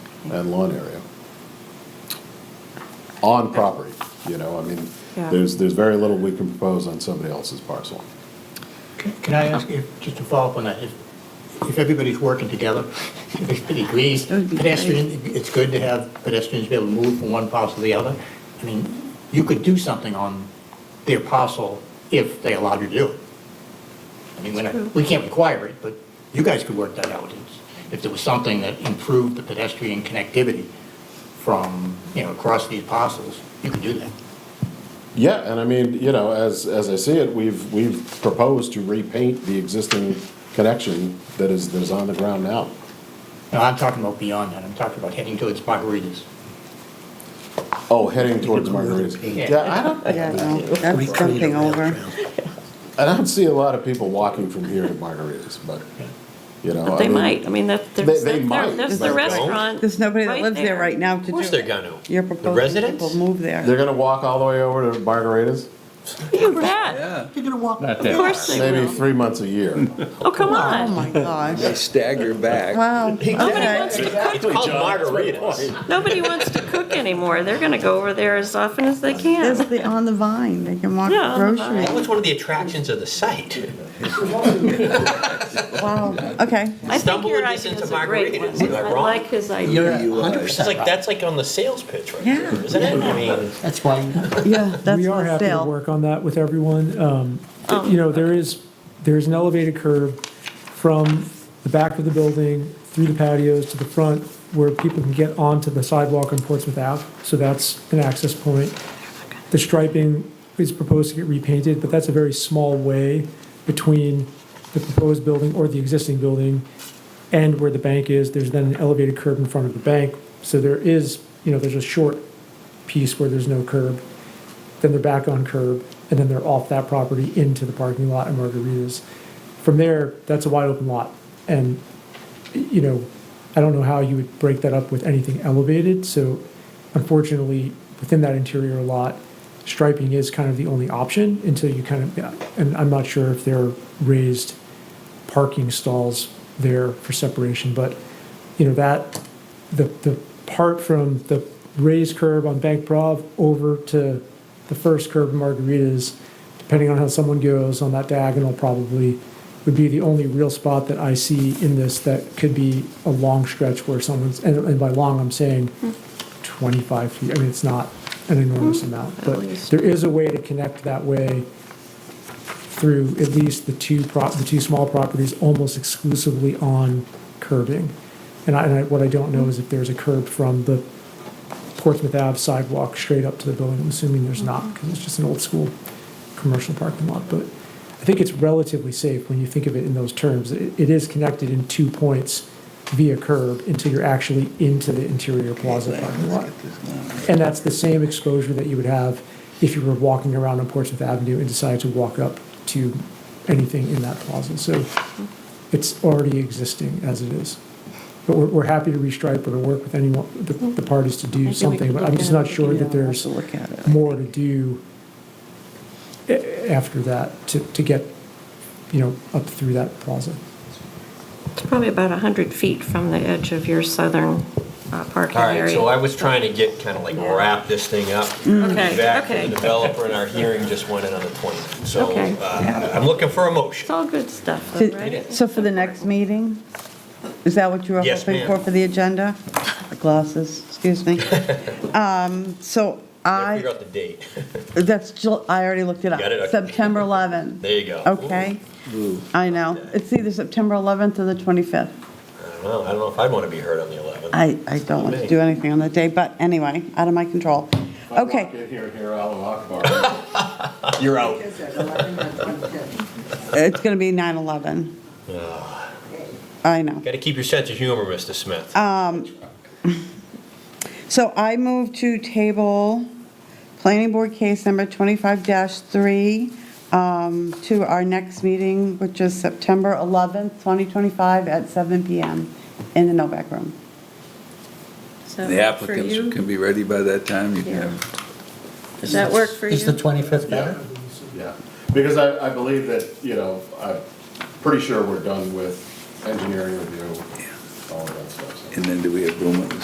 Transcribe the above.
and lawn area. On property, you know, I mean, Yeah. there's, there's very little we can propose on somebody else's parcel. Can can I ask, if- just to follow up on that, if, if everybody's working together, if everybody agrees, That would be great. pedestrian, it's good to have pedestrians be able to move from one parcel to the other. I mean, you could do something on their parcel if they allowed you to do it. I mean, we're not- we can't require it, but you guys could work that out. It's- If there was something that improved the pedestrian connectivity from, you know, across these parcels, you could do that. Yeah, and I mean, you know, as, as I see it, we've, we've proposed to repaint the existing connection that is, that is on the ground now. No, I'm talking about beyond that. I'm talking about heading towards margaritas. Oh, heading towards Margaritas. Yeah. Yeah, I don't, Yeah, no, that's jumping over. I don't see a lot of people walking from here to Margaritas, but, you know. But I they mean, might, I mean, that, They- there's, they that- might, there- there's but the don't. restaurant. There's nobody that lives there right now to do Of course they're gonna. You're The proposing people residents? move They're there. gonna walk all the way over to Margaritas, You bet, You're gonna walk Not of that. course they maybe will. three months a year. Oh, come Oh, on, my gosh. Stagger back. Wow. nobody Okay. wants to cook, Called margaritas. nobody wants to cook anymore, they're gonna go over there as often as they There's can. the, on the vine, they can walk Yeah, on the grocery. That was one of the attractions of the site. Wow, okay. I think Stumbling your this idea into is a great margaritas, one, am I I wrong? like his You're idea. hundred It's like, that's like on the sales pitch right there, Yeah. isn't it? I mean, That's why Yeah, that's Oh. We are the happy to sale. work on that with everyone. Um, You know, there is, there is an elevated curb from the back of the building through the patios to the front where people can get onto the sidewalk on Portsmouth Ave, so that's an access point. The striping is proposed to get repainted, but that's a very small way between the proposed building or the existing building and where the bank is. There's then an elevated curb in front of the bank, so there is, you know, there's a short piece where there's no curb then they're back on curb, and then they're off that property into the parking lot at Margaritas. From there, that's a wide open lot, and, you know, I don't know how you would break that up with anything elevated, so unfortunately, within that interior lot, striping is kind of the only option until you kind of, and I'm not sure if they're raised parking stalls there for separation, but, you know, that, the, the part from the raised curb on Bank Prov over to the first curb in Margaritas, depending on how someone goes on that diagonal probably, would be the only real spot that I see in this that could be a long stretch where someone's, and, and by long, I'm saying twenty-five feet, I mean, it's not an enormous amount, but least. there is a way to connect that way through at least the two prop, the two small properties almost exclusively on curbing. And I, and I, what I don't know is if there's a curb from the Portsmouth Ave sidewalk straight up to the building. I'm assuming there's not, because it's just an old school commercial parking lot. But I think it's relatively safe when you think of it in those terms. It, it is connected in two points via curb until you're actually into the interior plaza parking lot. And that's the same exposure that you would have if you were walking around on Portsmouth Avenue and decided to walk up to anything in that plaza. So it's already existing as it is. But we're, we're happy to restripe or to work with anyone, the, the parties to think do we something, could but I'm look just at it. not sure Yeah, we'll that there's have to look at it. more to do a- after that to, to get, you know, up through that plaza. It's probably about 100 feet from the edge of your southern uh, parking All right, area. so I was trying to get, kind of like wrap this thing up. Mm. Okay, Back to okay. the developer, and our hearing just went in on the 20th. So Okay. uh, I'm looking for a It's motion. all good stuff, though, So- right? So for the next meeting, is that what you were Yes, hoping ma'am. for, for the agenda? Glasses, excuse me. Um, So I I, figured out the date. that's, Jul- I already looked it up. Got it, okay. September 11. There you go. Okay, I know. It's either September 11th or the 25th. I don't know, I don't know if I'd want to be heard on the 11th. I, I don't want to do anything on that day, but anyway, out of my control. Walk Okay, in here, hear Allahu Akbar. You're out. it's going to be 9/11. I know. Got to keep your sense of humor, Mr. Smith. So I move to table Planning Board Case Number 25-3 um, to our next meeting, which is September 11th, 2025, at 7 PM in the Novak Room. So The for applicants you, can be ready by that time. You can Yeah. have Does that work for Is the you? 25th Yeah, better? yeah, because I, I believe that, you know, I'm pretty sure we're done with engineering review, all of that stuff. so. And then do we have room at the